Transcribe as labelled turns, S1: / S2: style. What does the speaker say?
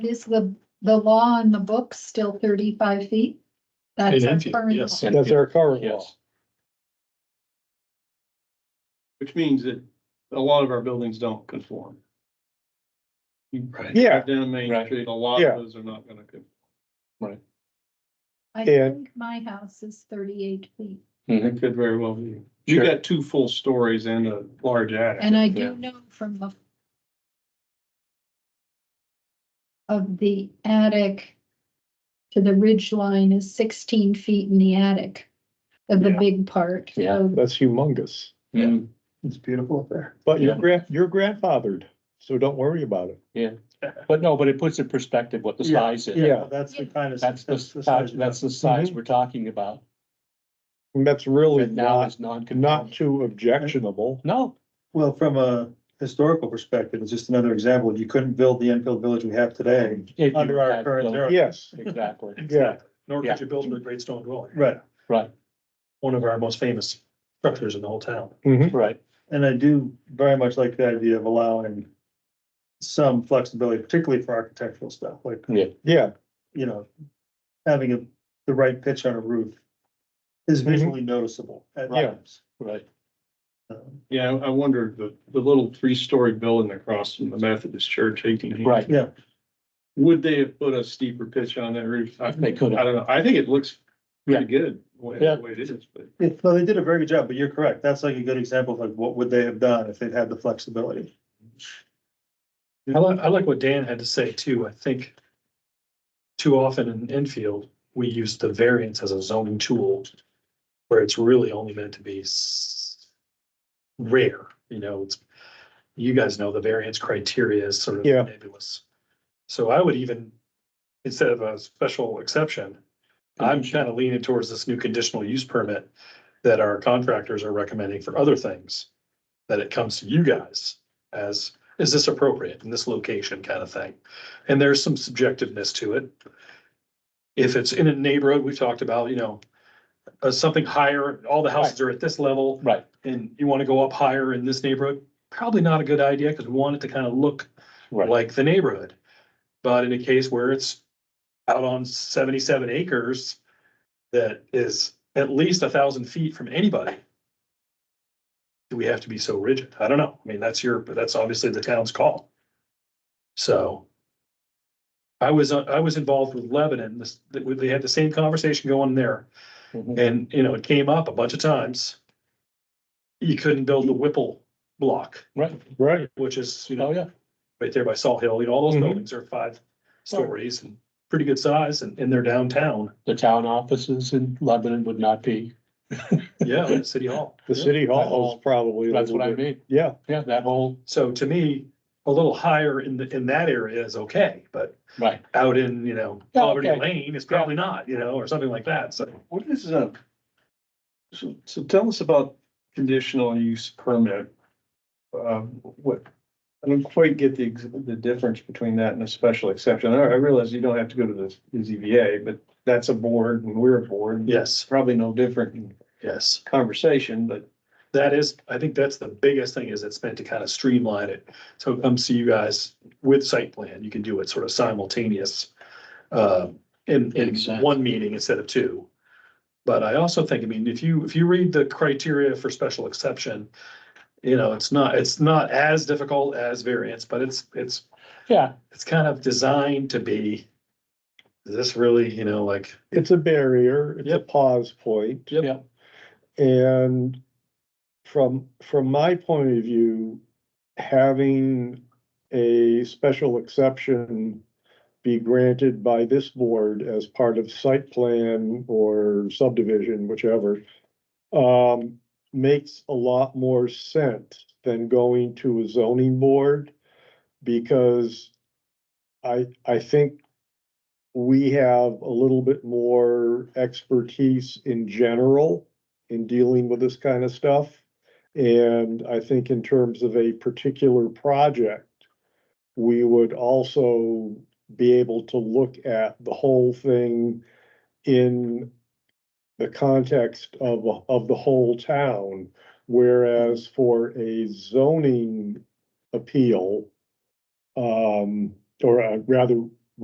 S1: Is the, the law on the books still thirty-five feet? That's
S2: It
S1: our
S2: is,
S1: current
S2: yes.
S1: law.
S3: That's our current law.
S2: Yes.
S4: Which means that a lot of our buildings don't conform. You
S2: Right.
S3: Yeah,
S4: drive Down Main
S2: Right.
S4: Street, a lot
S3: Yeah.
S4: of those are not gonna conform.
S1: I
S3: Yeah.
S1: think my house is thirty-eight feet.
S4: It could very well be.
S2: Sure.
S4: You got two full stories and a large attic.
S1: And I
S2: Yeah.
S1: do know from the of the attic to the ridge line is sixteen feet in the attic of the
S2: Yeah.
S1: big part.
S2: Yeah.
S1: So
S3: that's humongous.
S2: Yeah.
S4: Mm. It's beautiful up there.
S3: But your
S2: Yeah.
S3: grand, you're grandfathered, so don't worry about it.
S2: But no, but it puts in perspective what the
S5: Yeah,
S2: size is.
S3: Yeah.
S5: That's the kind of.
S2: That's the,
S5: size
S2: size-
S5: of
S2: that's the size
S3: Mhm.
S2: we're talking about.
S3: And that's really
S2: And now
S3: not,
S2: it's non-conforming.
S3: not too objectionable.
S2: No,
S5: it. Well, from a historical perspective, it's just another example. You couldn't build the Enfield Village we have today.
S2: If you
S5: Under our
S2: had
S5: current
S2: built-
S5: era.
S3: Yes,
S2: Exactly,
S3: yeah,
S6: Nor
S2: Yeah.
S6: could you build a great stone dwelling.
S5: Right.
S2: right,
S6: One of our most famous structures in the whole town.
S3: mhm,
S2: right.
S5: And I do very much like the idea of allowing some flexibility, particularly for architectural stuff, like,
S3: yeah,
S5: you know, having a, the right pitch on a roof is
S6: Mm-hmm.
S5: visually noticeable at
S3: Right.
S5: times.
S2: Right,
S5: Um,
S4: Yeah, I I wondered, the, the little three-story building across from the Methodist Church eighteen eighty.
S2: right.
S5: Yeah,
S4: Would they have put a steeper pitch on that roof? I, I
S2: They could have,
S4: don't know. I think it looks pretty good, the way,
S2: Yeah.
S4: the way it is, but.
S5: It- no, they did a very good job, but you're correct. That's like a good example of like, what would they have done if they'd had the flexibility?
S6: I like, I like what Dan had to say too. I think too often in Enfield, we use the variance as a zoning tool where it's really only meant to be s- rare, you know, it's, you guys know the variance criteria is sort of
S3: Yeah.
S6: nebulous. So I would even, instead of a special exception, I'm kind of leaning towards this new conditional use permit that our contractors are recommending for other things. That it comes to you guys as, is this appropriate in this location kind of thing? And there's some subjectiveness to it. If it's in a neighborhood, we've talked about, you know, uh, something higher, all the houses are at this level
S2: right,
S6: and you want to go up higher in this neighborhood, probably not a good idea because we want it to kind of look
S2: right.
S6: like the neighborhood. But in a case where it's out on seventy-seven acres that is at least a thousand feet from anybody. Do we have to be so rigid? I don't know. I mean, that's your, but that's obviously the town's call. So. I was, uh, I was involved with Lebanon, this, they had the same conversation going there.
S2: Mhm.
S6: And, you know, it came up a bunch of times. You couldn't build the Whipple block,
S2: Right,
S3: right,
S6: which is, you know,
S2: oh, yeah,
S6: right there by Salt Hill, you know, all those
S3: Mhm.
S6: buildings are five stories and pretty good size and, and they're downtown.
S2: the town offices in Lebanon would not be,
S6: Yeah, at City Hall.
S3: the city hall
S2: Hall.
S3: is probably. a
S2: that's
S3: little
S2: what I
S3: bit-
S2: mean,
S3: Yeah,
S2: yeah, that whole,
S6: So to me, a little higher in the, in that area is okay, but
S2: right,
S6: out in, you know,
S2: Yeah,
S6: Poverty
S2: okay.
S6: Lane is probably not, you know, or something like that. So
S4: What is a, so, so tell us about conditional use permit. Um, what, I don't quite get the, ex- the difference between that and a special exception. I I realize you don't have to go to the the ZBA, but that's a board and we're a board. It's
S6: yes,
S4: probably no different in
S6: yes,
S4: conversation, but
S6: that is, I think that's the biggest thing is it's meant to kind of streamline it. So come see you guys with site plan. You can do it sort of simultaneous. uh, in, in
S2: Exactly.
S6: one meeting instead of two. But I also think, I mean, if you, if you read the criteria for special exception, you know, it's not, it's not as difficult as variance, but it's, it's,
S2: yeah,
S6: it's kind of designed to be, is this really, you know, like,
S3: it's a barrier, it's a
S6: Yep.
S3: pause point.
S6: Yep.
S2: Yep.
S3: And from, from my point of view, having a special exception be granted by this board as part of site plan or subdivision, whichever, um, makes a lot more sense than going to a zoning board because I, I think we have a little bit more expertise in general in dealing with this kind of stuff. And I think in terms of a particular project, we would also be able to look at the whole thing in the context of, of the whole town. Whereas for a zoning appeal, um, or uh, rather